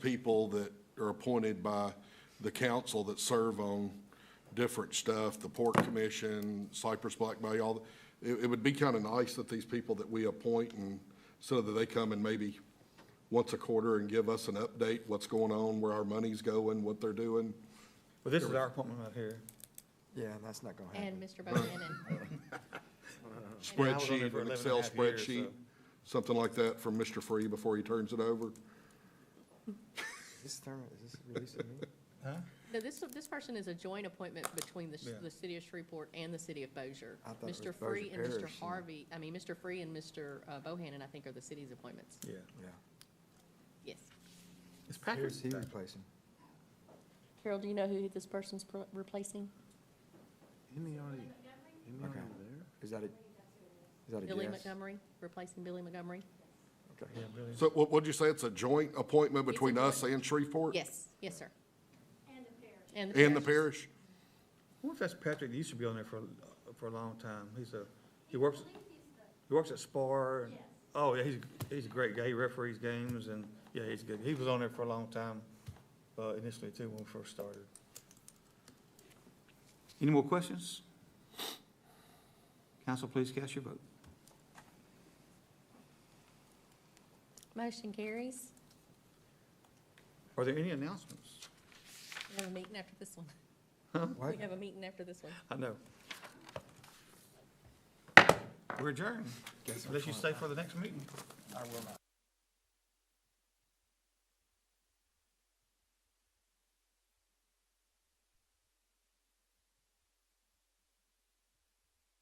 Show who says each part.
Speaker 1: people that are appointed by the council that serve on different stuff, the Port Commission, Cypress Black Bay, all, the- it, it would be kind of nice that these people that we appoint and so that they come and maybe once a quarter and give us an update, what's going on, where our money's going, what they're doing.
Speaker 2: Well, this is our appointment right here.
Speaker 3: Yeah, and that's not gonna happen.
Speaker 4: And Mr. Bohannon.
Speaker 2: I was on there
Speaker 1: Spreadsheet, an
Speaker 2: for 11 and a
Speaker 1: Excel
Speaker 2: half years, so-
Speaker 1: spreadsheet, something like that from Mr. Free before he turns it over.
Speaker 3: This term, is this released to me?
Speaker 4: No, this, this person is a joint appointment between the,
Speaker 2: Yeah.
Speaker 4: the city of Shreveport and the city of Bossier.
Speaker 3: I thought it
Speaker 4: Mr.
Speaker 3: was
Speaker 4: Free
Speaker 3: Bossier
Speaker 4: and Mr.
Speaker 3: Parish, yeah.
Speaker 4: Harvey, I mean, Mr. Free and Mr. uh, Bohannon, I think, are the city's appointments.
Speaker 2: Yeah.
Speaker 3: Yeah.
Speaker 4: Yes.
Speaker 2: It's
Speaker 3: Who's
Speaker 2: Packers.
Speaker 3: he replacing?
Speaker 4: Carol, do you know who this person's replacing?
Speaker 5: Isn't he already, isn't he
Speaker 3: Okay.
Speaker 5: already there?
Speaker 3: Is that a, is that a
Speaker 4: Billy
Speaker 3: yes?
Speaker 4: Montgomery, replacing Billy Montgomery?
Speaker 3: Okay.
Speaker 2: Yeah, really.
Speaker 1: So what, what'd you say? It's a joint appointment
Speaker 4: It's a
Speaker 1: between us and Shreveport?
Speaker 4: Yes, yes, sir. And the parish.
Speaker 1: And the parish?
Speaker 2: I wonder if that's Patrick, he used to be on there for, for a long time. He's a, he works, he works at Spar. and- Oh, yeah, he's, he's a great guy. He referees games and, yeah, he's good. He was on there for a long time, uh, initially too, when we first started. Any more questions? Council, please cast your vote.
Speaker 4: Motion carries.
Speaker 2: Are there any announcements?
Speaker 4: We have a meeting after this one.
Speaker 3: What?
Speaker 4: We have a meeting after this one.
Speaker 2: I know. We're adjourned, unless you stay for the next meeting.
Speaker 3: I will not.